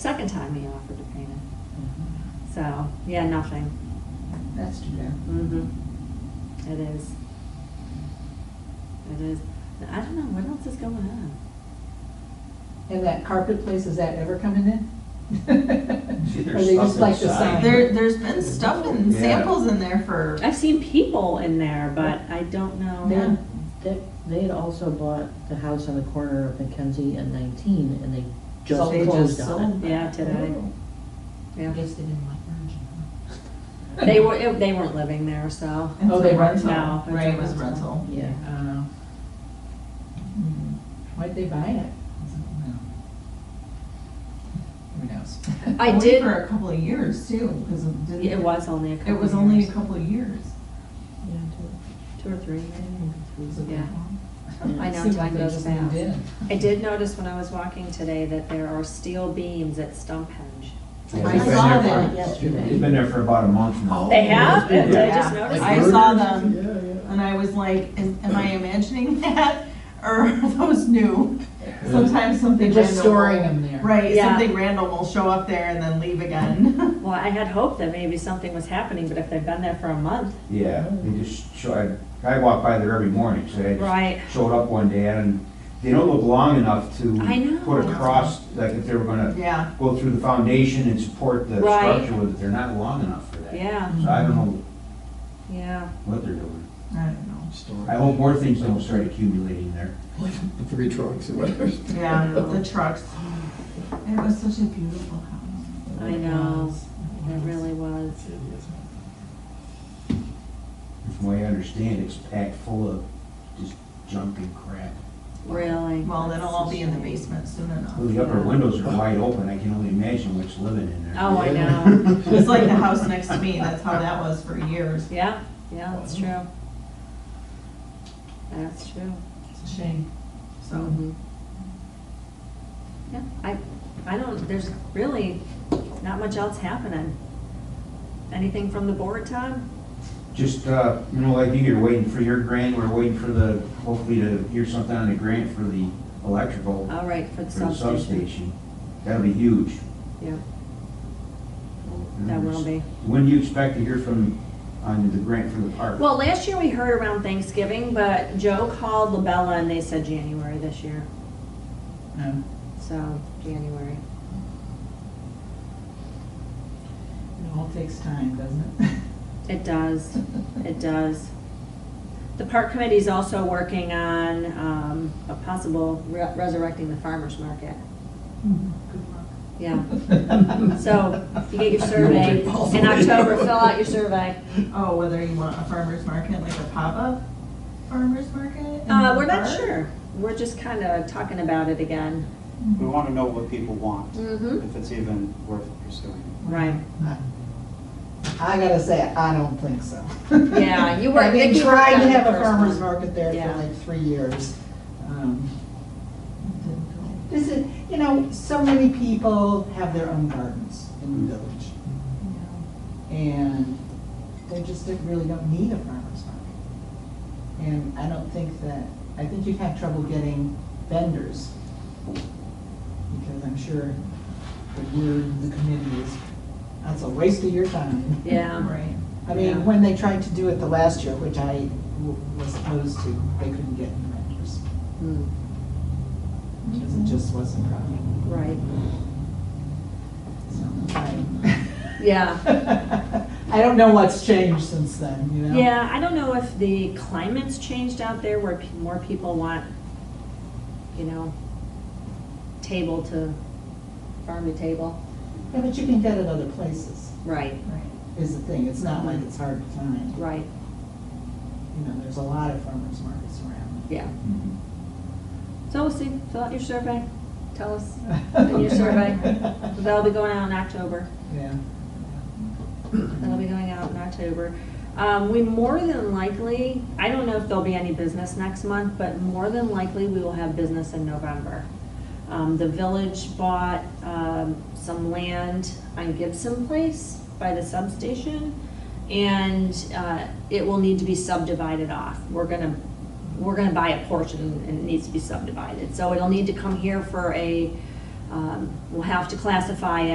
second time he offered to paint it. So, yeah, nothing. That's too bad. Mhm. It is. It is. I don't know, what else is going on? And that carpet place, is that ever coming in? See, Or there's they just stuff like the inside. sign? There, there's been stuff and Yeah. samples in there for, I've seen people in there, but I don't Oh, know. Then, they, they had also bought the house on the corner of Mackenzie and nineteen, and they just Sold. They closed just on sold. it. Yeah, today. I Oh. Yeah. guess they didn't like Virgin. huh? They were, it- they weren't living there, so. Oh, it's they a rent now. rental, It's a right, it was rental. rental. Um, Yeah, Uh, hmm, Why'd they buy it? Well, Who knows? I Only did, For a couple of years too, because it didn't. it was only a couple It was only a couple of years. Two or three, maybe. Was it that Yeah. long? I It know, seemed like time they goes just moved fast. in. I did notice when I was walking today that there are steel beams at Stumphenge. Yeah, I they've been saw there for- that yesterday. They've been there for about a month now. They have? Yeah. Did I just Yeah. notice I that? saw them. Yeah, And I was like, is- am I imagining that or are those new? Sometimes something They're random. just storing will- them there. Right, Yeah. something random will show up there and then leave again. Well, I had hoped that maybe something was happening, but if they've been there for a month, Yeah, they just show, I, I walk by there every morning, so I just right? showed up one day and they don't look long enough to I know. put a cross, like if they were gonna Yeah, go through the foundation and support the Right. structure with it, they're not long enough for that. Yeah, So I don't know yeah. what they're doing. I don't know. I hope more things don't start accumulating there. Like Three trucks or whatever. Yeah, the trucks. It was such a beautiful house. I know. It really was. From what I understand, it's packed full of just junk and crap. Really. Well, that'll all be in the basement soon enough. Well, The upper windows are wide open, I can only imagine what's living in there. Oh, I know. It's like the house next to me, that's how that was for years. Yeah, yeah, that's true. That's true. It's a shame. So, Mhm. Yeah, I, I don't, there's really not much else happening. Anything from the board, Tom? Just, uh, you know, like you, you're waiting for your grant, we're waiting for the, hopefully to hear something on the grant for the electrical All right, for the for the substation. substation. That'll be huge. Yeah, that will be. When do you expect to hear from, on the grant for the park? Well, last year we heard around Thanksgiving, but Joe called Labella and they said January this year, Um, so January. It all takes time, doesn't it? It does, it does. The park committee's also working on um, a possible re- resurrecting the farmer's market. Yeah, so you get your survey in October, fill out your survey. oh, whether you want a farmer's market, like a pop-up farmer's market? in Uh, the We're not park? sure, we're just kind of talking about it again. We want to know what people want, Mm-hmm. if it's even worth pursuing. Right. I gotta say, I don't think so. Yeah, you were- I've been you were trying to kinda have the a first one. farmer's market there Yeah. for like three years. Um, This is, you know, so many people have their own gardens in the village. Mm-hmm. And they just don't- really don't need a farmer's market. And I don't think that, I think you'd have trouble getting vendors. Because I'm sure the word in the committee is, that's a waste of your time. Yeah, Right. Yeah. I mean, when they tried to do it the last year, which I w- was opposed to, they couldn't get any vendors. Mm, Because it just wasn't profitable. right, So, yeah. I I don't know what's changed since then, you know? Yeah, I don't know if the climate's changed out there where pe- more people want, you know, table to, farm to table. Yeah, but you can get it other places, Right, Right. is the thing. It's not like it's hard to find. right, You know, there's a lot of farmers markets around. yeah. Mhm. So we'll see, fill out your survey, tell us. And your survey. That'll be going out in October. Yeah. That'll be going out in October. Um, we more than likely, I don't know if there'll be any business next month, but more than likely, we will have business in November. Um, the village bought, um, some land on Gibson Place by the substation. And, uh, it will need to be subdivided off. We're gonna, we're gonna buy a portion and it needs to be subdivided. So it'll need to come here for a, um, we'll have to classify